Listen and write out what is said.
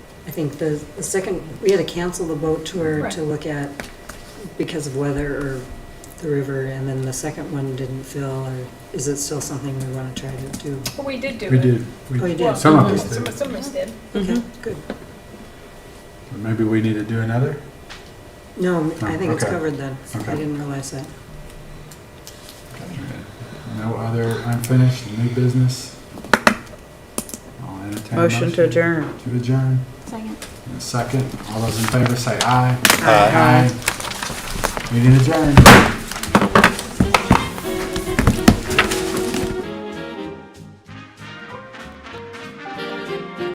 I think the, the second, we had to cancel the boat tour Right. to look at because of weather or the river, and then the second one didn't fill, or is it still something we want to try to do? Well, we did do it. We did. We- Oh, you Well, did? Some of us Some did. some of us did. Okay, good. Maybe we need to do another? No, I Oh, think it's okay. covered then. I Okay. didn't realize that. No other unfinished new business? I'll entertain a Motion to adjourn. To adjourn. Second. And Second, all those in favor say aye. Aye. Aye. Meeting adjourned.